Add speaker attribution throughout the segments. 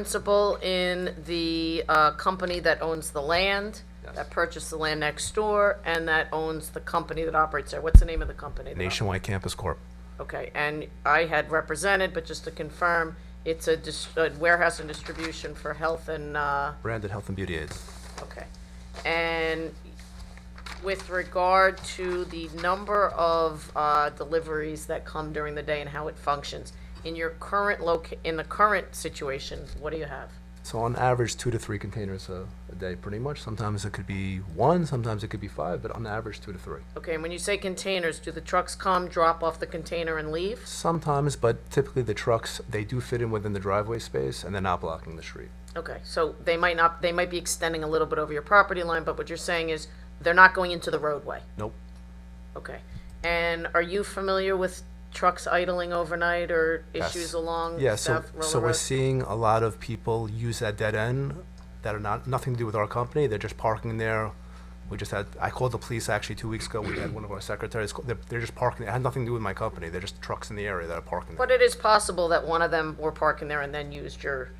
Speaker 1: principal in the uh, company that owns the land, that purchased the land next door, and that owns the company that operates there. What's the name of the company? that op-
Speaker 2: Nationwide Campus Corp.
Speaker 1: Okay, and I had represented, but just to confirm, it's a dis- a warehouse and distribution for health and, uh,
Speaker 2: Branded Health and Beauty Aids.
Speaker 1: Okay. And with regard to the number of uh, deliveries that come during the day and how it functions, in your current loc, in the current situation, what do you have?
Speaker 2: So on average, two to three containers a, a day, pretty much. Sometimes it could be one, sometimes it could be five, but on average, two to three.
Speaker 1: Okay, and when you say containers, do the trucks come, drop off the container and leave?
Speaker 2: Sometimes, but typically the trucks, they do fit in within the driveway space and they're not blocking the street.
Speaker 1: Okay, so they might not, they might be extending a little bit over your property line, but what you're saying is they're not going into the roadway?
Speaker 2: Nope.
Speaker 1: Okay. And are you familiar with trucks idling overnight or issues along
Speaker 2: Yeah, so,
Speaker 1: South Roller Road?
Speaker 2: so we're seeing a lot of people use that dead end that are not, nothing to do with our company. They're just parking there. We just had, I called the police actually two weeks ago. We had one of our secretaries, call- they're, they're just parking. It had nothing to do with my company. They're just trucks in the area that are parking there.
Speaker 1: But it is possible that one of them were parking there and then used your,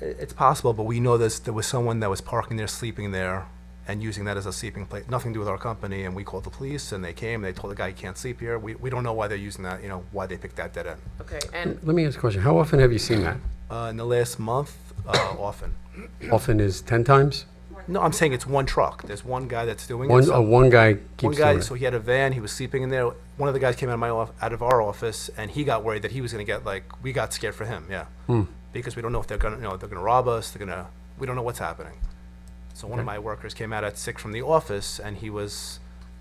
Speaker 2: It- It's possible, but we know this, there was someone that was parking there, sleeping there, and using that as a sleeping place, nothing to do with our company, and we called the police, and they came, they told the guy he can't sleep here, we, we don't know why they're using that, you know, why they picked that dead end.
Speaker 1: okay, and,
Speaker 3: Let me ask a question. How often have you seen that?
Speaker 2: Uh, in the last month, uh, often.
Speaker 3: Often is 10 times?
Speaker 2: No, I'm saying it's one truck, there's one guy that's doing it.
Speaker 3: One,
Speaker 2: so-
Speaker 3: oh, one guy
Speaker 2: One
Speaker 3: keeps
Speaker 2: guy,
Speaker 3: doing
Speaker 2: so
Speaker 3: it.
Speaker 2: he had a van, he was sleeping in there, one of the guys came out of my off, out of our office, and he got worried that he was gonna get, like, we got scared for him, yeah. Because we don't know if they're gonna, you know, they're gonna rob us, they're gonna, we don't know what's happening. So one of my workers came out at six from the office, and he was,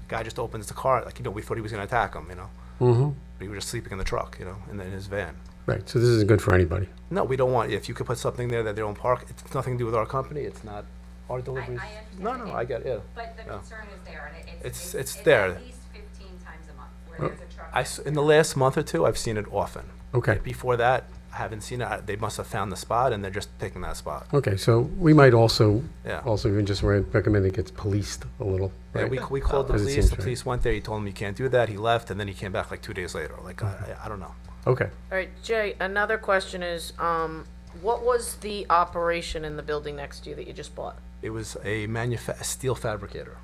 Speaker 2: guy just opens the car, like, you know, we thought he was gonna attack him, you know? Mm-hmm. But he was just sleeping in the truck, you know, in, the- in his van.
Speaker 3: Right, so this isn't good for anybody.
Speaker 2: No, we don't want, if you could put something there that they don't park, it's nothing to do with our company, it's not our deliveries. No,
Speaker 4: understand.
Speaker 2: no, I get, yeah.
Speaker 4: But the
Speaker 2: Yeah.
Speaker 4: concern is there, and it-
Speaker 2: It's-
Speaker 4: it's,
Speaker 2: it's
Speaker 4: it's, it's
Speaker 2: there.
Speaker 4: at least fifteen times a month where there's a truck.
Speaker 2: I s in the last month or two, I've seen it often.
Speaker 3: Okay,
Speaker 2: Before that, I haven't seen it. I- They must have found the spot and they're just picking that spot.
Speaker 3: okay, so we might also,
Speaker 2: Yeah.
Speaker 3: also even just re- recommend it gets policed a little,
Speaker 2: Yeah,
Speaker 3: right?
Speaker 2: we, we called the
Speaker 3: Doesn't
Speaker 2: police.
Speaker 3: seem
Speaker 2: The
Speaker 3: fair.
Speaker 2: police went there. He told him you can't do that. He left and then he came back like two days later. Like, I, I I don't know.
Speaker 3: Okay,
Speaker 1: all right, Jay, another question is, um, what was the operation in the building next to you that you just bought?
Speaker 2: It was a manufa- a steel fabricator.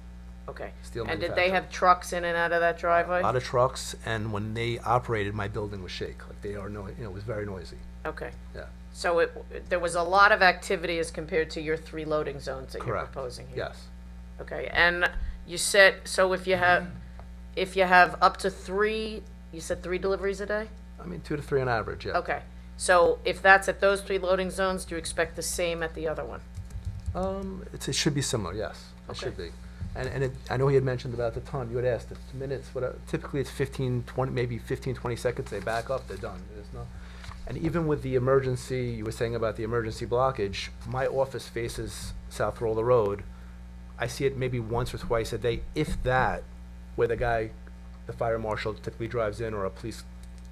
Speaker 1: Okay.
Speaker 2: Steel
Speaker 1: And did they have trucks in and out of that
Speaker 2: A lot
Speaker 1: driveway?
Speaker 2: of trucks and when they operated, my building was shake. Like they are, no, you know, it was very noisy.
Speaker 1: Okay,
Speaker 2: Yeah.
Speaker 1: so it, there was a lot of activity as compared to your three loading zones that you're
Speaker 2: Correct.
Speaker 1: proposing here?
Speaker 2: Yes.
Speaker 1: Okay, and you said, so if you have, if you have up to three, you said three deliveries a day?
Speaker 2: I mean, two to three on average. Yeah.
Speaker 1: Okay, so if that's at those three loading zones, do you expect the same at the other one?
Speaker 2: Um, it's, it should be similar, yes. It should be. And, and it, I know he had mentioned about the ton, you had asked, it's minutes, whatever, typically it's 15, 20, maybe 15, 20 seconds, they back up, they're done. There's no, and even with the emergency, you were saying about the emergency blockage, my office faces South Roller Road. I see it maybe once or twice a day, if that, where the guy, the fire marshal typically drives in or a police,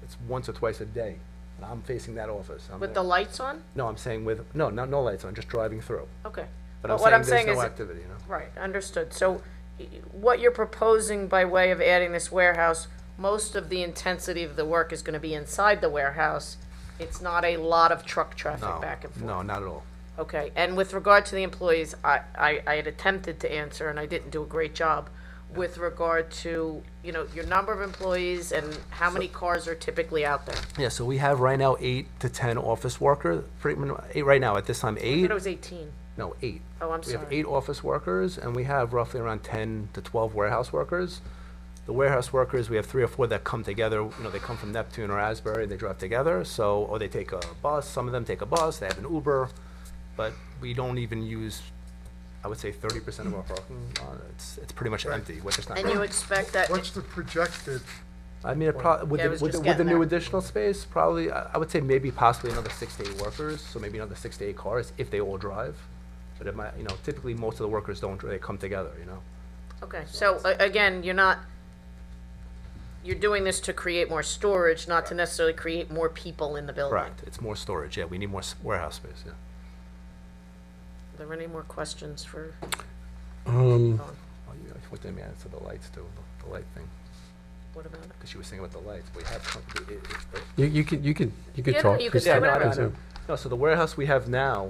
Speaker 2: it's once or twice a day. And I'm facing that office. I'm
Speaker 1: With the
Speaker 2: there.
Speaker 1: lights on?
Speaker 2: No, I'm saying with, no, not, no lights on, just driving through.
Speaker 1: Okay.
Speaker 2: But I'm
Speaker 1: what
Speaker 2: saying there's
Speaker 1: is
Speaker 2: no activity, you know?
Speaker 1: Right, understood. So y- what you're proposing by way of adding this warehouse, most of the intensity of the work is gonna be inside the warehouse. It's not a lot of truck traffic back and forth.
Speaker 2: No, not at all.
Speaker 1: Okay, and with regard to the employees, I, I, I had attempted to answer, and I didn't do a great job, with regard to, you know, your number of employees and how many cars are typically out there.
Speaker 2: Yeah, so we have right now eight to ten office worker, pretty mu- eight right now, at this time,
Speaker 1: I
Speaker 2: eight,
Speaker 1: thought it was eighteen.
Speaker 2: no, eight.
Speaker 1: Oh, I'm
Speaker 2: We have
Speaker 1: sorry.
Speaker 2: eight office workers, and we have roughly around ten to twelve warehouse workers. The warehouse workers, we have three or four that come together, you know, they come from Neptune or Asbury, and they drive together, so, or they take a bus, some of them take a bus, they have an Uber, but we don't even use, I would say thirty percent of our parking, lot. it's, it's pretty much empty, which is not.
Speaker 1: And
Speaker 2: great.
Speaker 1: you expect that,
Speaker 5: What's the projected,
Speaker 2: I mean, it prob- with
Speaker 1: Yeah, I was
Speaker 2: the, with the,
Speaker 1: just
Speaker 2: with the
Speaker 1: getting
Speaker 2: new
Speaker 1: there.
Speaker 2: additional space, probably, I, I would say maybe possibly another six to eight workers, so maybe another six to eight cars, if they all drive. But it might, you know, typically most of the workers don't, dri- they come together, you know?
Speaker 1: okay, so, a- again, you're not, you're doing this to create more storage, not to necessarily create more people in the building.
Speaker 2: It's more storage, yeah, we need more s- warehouse space, yeah.
Speaker 1: Are there any more questions for?
Speaker 3: um,
Speaker 2: Oh, you, I put them, yeah, so the lights too, the- the light thing.
Speaker 1: What about it?
Speaker 2: because she was saying about the lights, but we have, com- it- it- it-
Speaker 3: You, you could, you could, you could
Speaker 1: Yeah, no,
Speaker 3: talk.
Speaker 1: you could
Speaker 3: Just
Speaker 1: say
Speaker 2: Yeah,
Speaker 3: uh, talk
Speaker 2: no, I
Speaker 1: whatever.
Speaker 3: to
Speaker 2: don't- I
Speaker 3: Zoom.
Speaker 2: don't- no, so the warehouse we have now